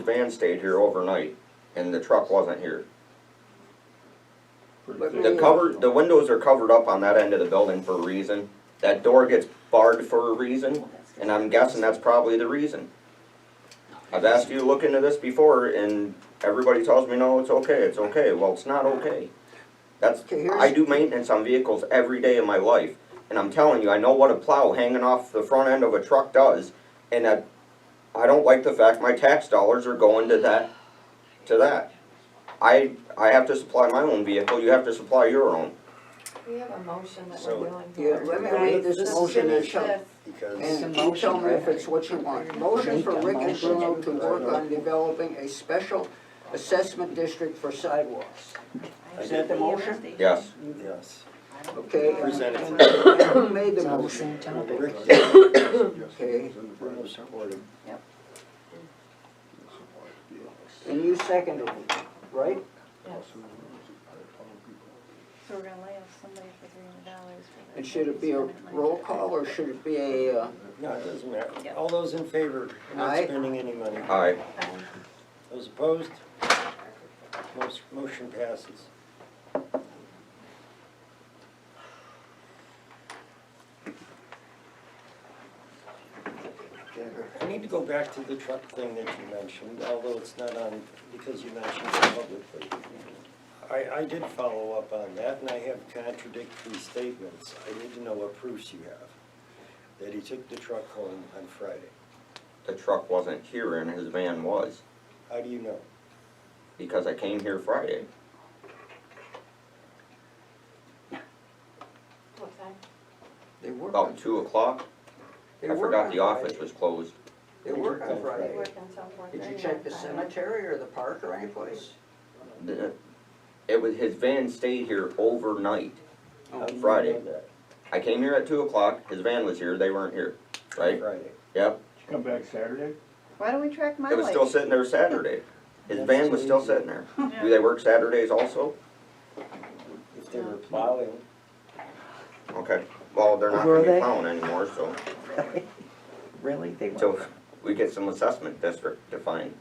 van stayed here overnight and the truck wasn't here. The cover, the windows are covered up on that end of the building for a reason. That door gets barred for a reason, and I'm guessing that's probably the reason. I've asked you to look into this before and everybody tells me, no, it's okay, it's okay. Well, it's not okay. That's, Okay, here's- I do maintenance on vehicles every day of my life, and I'm telling you, I know what a plow hanging off the front end of a truck does, and I, I don't like the fact my tax dollars are going to that, to that. I, I have to supply my own vehicle, you have to supply your own. We have a motion that So- we're doing. Yeah, let me read this Let's motion and finish show. this. Because And you tell me if it's what you want. Motion for Rick and Bruno to work on developing a special assessment district for sidewalks. Is that the motion? Yes, yes, Okay, and presented. and who made the It's all the motion? same topic. Rick, Okay, Bruno supported. and you seconded it, right? So we're gonna lay off somebody for three hundred dollars. And should it be a roll call or should it be a, uh, No, it doesn't matter. All those in favor of not Aye. spending any money? aye. Those opposed? Most, motion passes. I need to go back to the truck thing that you mentioned, although it's not on, because you mentioned it publicly. I, I did follow up on that, and I have contradictory statements. I need to know what proofs you have, that he took the truck home on Friday. The truck wasn't here and his van was, How do you know? because I came here Friday, What time? they work on, about two o'clock. they Oh, I work forgot on the office Friday. was closed. They work on We Friday. work until four thirty. Did you check the on Friday. cemetery or the park or anyplace? The- It was, his van stayed here overnight. How do you know Friday. that? I came here at two o'clock, his van was here, they weren't here, right? Friday. Yep, Come back Saturday? Why don't we track it was still mileage? sitting there Saturday. His van was still sitting there. Do they work Saturdays also? If they were plowing, Okay, well, they're not Were gonna be they? plowing anymore, so, Really? Really? They so were. we get some assessment district defined.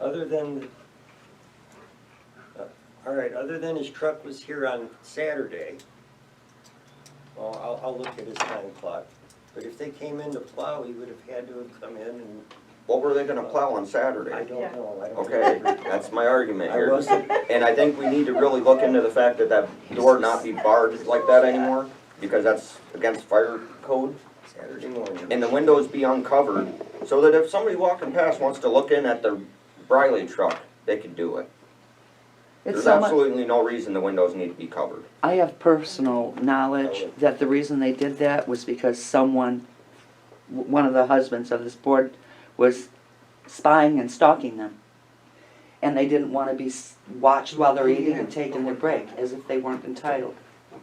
other than, uh, all right, other than his truck was here on Saturday, well, I'll, I'll look at his time clock, but if they came in to plow, he would have had to have come in and, What were they gonna plow on I Saturday? don't know, I don't. Okay, remember. that's my argument I here. wasn't, And I think we need to really look into the fact that that door not be barred like that anymore, because that's against fire code. Saturday morning. and the windows be uncovered, so that if somebody walking past wants to look in at the Briley truck, they can do it. It's There's so much, absolutely no reason the windows need to be covered. I have personal knowledge that the reason they did that was because someone, w- one of the husbands of this board was spying and stalking them. And they didn't wanna be s- watched while they're eating and taking their break, as if they weren't entitled.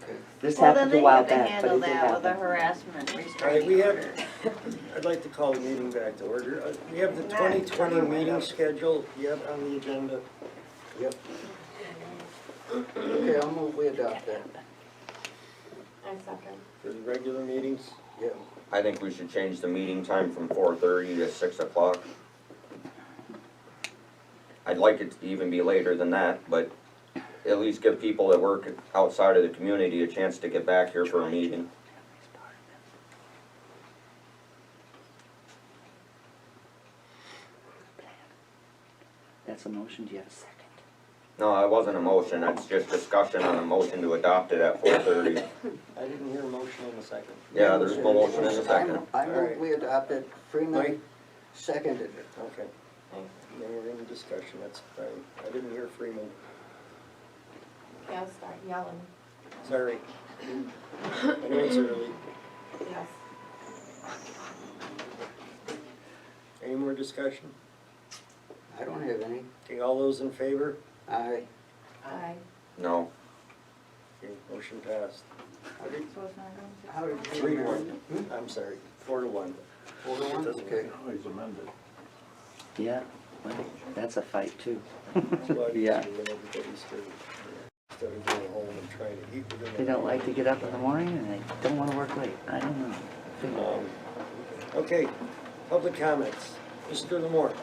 Okay. This Well, happened then a they while have to back, but handle it did that with a happen. harassment All right, we restraining have, order. I'd like to call the meeting back to order. Uh, We have the Nah. 2020 meeting schedule, yep, on the agenda. Okay, I'll move we adopt that. I second. For the regular meetings? Yeah. I think we should change the meeting time from four thirty to six o'clock. I'd like it to even be later than that, but at least give people that work outside of the community a chance to get back here for a meeting. That's a motion, do you have a second? No, that wasn't a motion, that's just discussion on a motion to adopt it at four thirty. I didn't hear a motion in a second. Yeah, there's no motion in a second. I All right. move we adopted, Mike? Freeman seconded it. Okay. Then we're in discussion, that's fine. I didn't hear Freeman, Yeah, I'll start yelling, sorry. I know it's early. yes. Any more discussion? I don't have any. Okay, all those in favor? I, Aye. No, Okay, motion passed. how did, So it's not going to- how did you? Three to one, I'm sorry, four to one. Four to one? Okay. Always amended. Yeah, well, that's a fight too. But Yeah. everybody's good. Instead of going home and trying to eat within. They don't like to get up in the morning and they don't wanna work late, I don't know. Um, Okay, public comments. Mr. Lamore?